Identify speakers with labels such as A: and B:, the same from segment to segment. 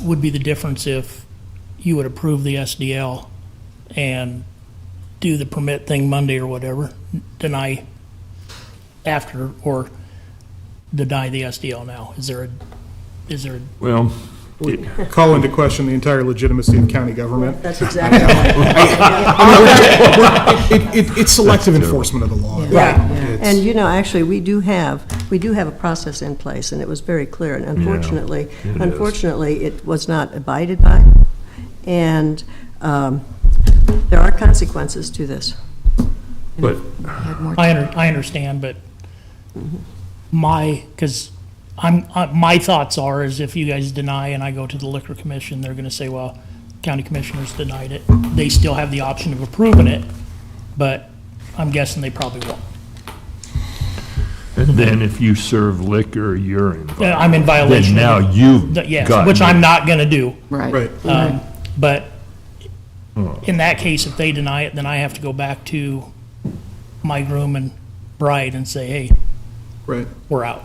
A: Would be the difference if you would approve the SDL and do the permit thing Monday or whatever, deny after, or deny the SDL now? Is there a, is there a
B: Well,
C: Call into question the entire legitimacy of county government.
D: That's exactly right.
C: It, it, it's selective enforcement of the law.
D: Yeah.
C: It's-
D: And, you know, actually, we do have, we do have a process in place, and it was very clear, and unfortunately,
B: it is.
D: unfortunately, it was not abided by, and um, there are consequences to this.
B: but
A: I, under, I understand, but my, because I'm, I- my thoughts are is if you guys deny and I go to the liquor commission, they're going to say, well, county commissioners denied it. They still have the option of approving it, but I'm guessing they probably won't.
B: then if you serve liquor, you're in.
A: Uh, I'm in
B: Then
A: violation.
B: now you've
A: Th- Yes,
B: gotten
A: which I'm
B: it.
A: not going to do.
C: Right.
D: Uh,
A: Um, But
B: Hmm.
A: in that case, if they deny it, then I have to go back to my groom and bride and say, hey,
C: Right.
A: we're out.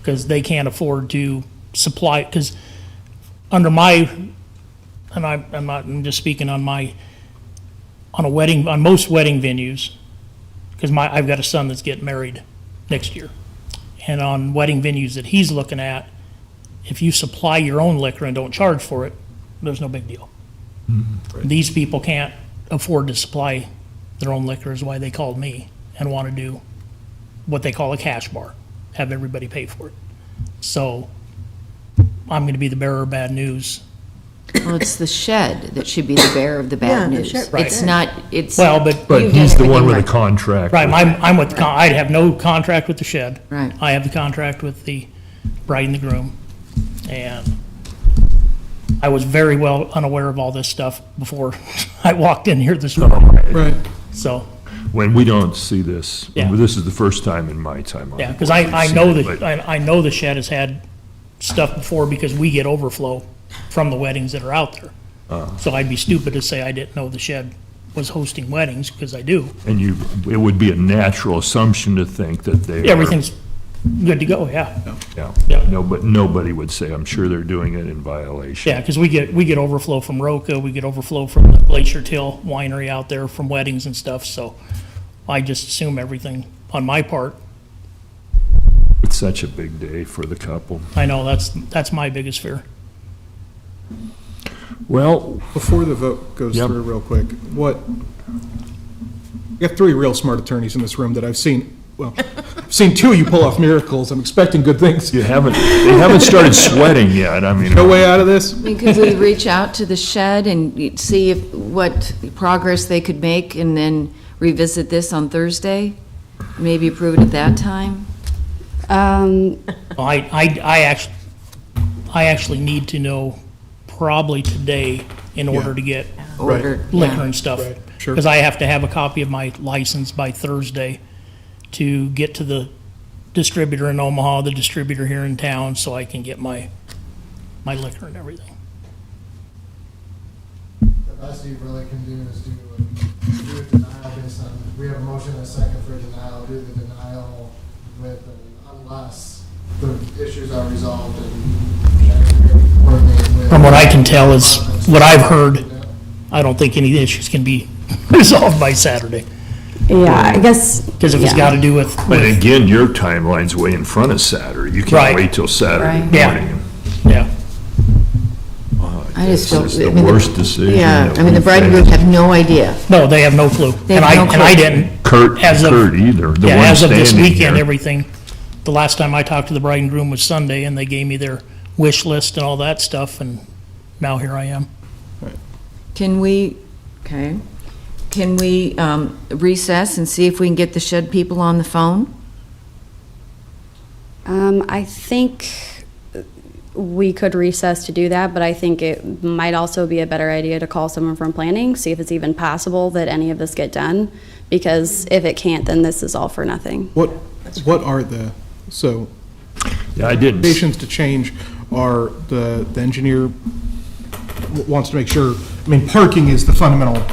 A: Because they can't afford to supply, because under my, and I, I'm not, I'm just speaking on my, on a wedding, on most wedding venues, because my, I've got a son that's getting married next year. And on wedding venues that he's looking at, if you supply your own liquor and don't charge for it, there's no big deal. These people can't afford to supply their own liquor is why they called me and want to do what they call a cash bar, have everybody pay for it. So I'm going to be the bearer of bad news.
E: Well, it's the shed that should be the bearer of the
D: Yeah,
E: bad
D: the
E: news.
D: shed-
E: It's not, it's.
A: Well, but-
B: But
E: you've done
B: he's the one
E: everything
B: with a
E: right.
B: contract.
A: Right, I'm, I'm with, the con- I have no contract with the shed.
E: Right.
A: I have the contract with the bride and the groom. And I was very well unaware of all this stuff before I walked in here this morning.
C: Right.
A: So,
B: When we don't see this,
A: Yeah.
B: this is the first time in my time. on
A: yeah,
B: the
A: because I,
B: board we've
A: I
B: seen
A: know
B: it,
A: that,
B: but-
A: I, I know the shed has had stuff before because we get overflow from the weddings that are out there. So I'd be stupid to say I didn't know the shed was hosting weddings, because I do.
B: And you, it would be a natural assumption to think that they are.
A: Everything's good to go, yeah.
B: Yeah.
A: Yeah.
B: No, but nobody would say, I'm sure they're doing it in violation.
A: Yeah, because we get, we get overflow from Roca, we get overflow from the Glacier Till Winery out there from weddings and stuff, so I just assume everything on my part.
B: It's such a big day for the couple.
A: I know that's, that's my biggest fear.
B: Well,
C: Before the vote goes
B: Yep.
C: through real quick, what, you have three real smart attorneys in this room that I've seen, well, I've seen two of you pull off miracles. I'm expecting good things.
B: you haven't, they haven't started sweating yet, I mean.
C: No way out of this?
E: I mean, Could we reach out to the shed and see if, what progress they could make and then revisit this on Thursday? Maybe approve it at that time?
F: Um,
A: I, I, I actually, I actually need to know probably today in order to get
C: Right.
E: Order-
B: uh,
E: yeah.
A: liquor and stuff.
C: Right, sure.
A: Because I have to have a copy of my license by Thursday to get to the distributor in Omaha, the distributor here in town, so I can get my, my liquor and everything.
G: The best you really can do is do, do a denial based on, we have a motion and a second for a denial, do the denial with, an unless the issues are resolved and. coordinate with-
A: From what I can tell is, what I've heard, I don't think any issues can be resolved by Saturday,
F: yeah, I guess.
A: because if it's
F: yeah.
A: got to do with,
B: But again, your timeline's way in front of Saturday. You
A: Right.
B: can't wait till Saturday
E: Right.
A: Yeah.
B: morning.
A: yeah.
E: I just don't.
B: This is the
E: I mean,
B: worst decision
E: Yeah,
B: that
E: I mean, the
B: we've
E: bride and groom
B: had.
E: have no idea.
A: No, they have no clue.
E: They have
A: And I,
E: no
A: and I
E: clue.
A: didn't.
B: Kurt,
A: As of-
B: Kurt either, the
A: Yeah,
B: one
A: as of this
B: standing
A: weekend,
B: here.
A: everything, the last time I talked to the bride and groom was Sunday, and they gave me their wish list and all that stuff, and now here I am.
E: Can we, okay, can we um, recess and see if we can get the shed people on the phone?
F: Um, I think we could recess to do that, but I think it might also be a better idea to call someone from planning, see if it's even possible that any of this get done. Because if it can't, then this is all for nothing.
C: What, what are the, so
B: Yeah, I didn't, s-
C: recommendations to change are the, the engineer w- wants to make sure, I mean, parking is the fundamental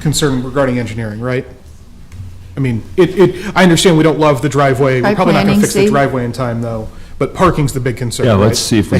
C: concern regarding engineering, right? I mean, it, it, I understand we don't love the driveway,
E: By
C: we're probably not gonna
E: planning,
C: fix the
E: Steve?
C: driveway in time, though, but parking's the big concern,
B: yeah,
C: right?
B: let's see if we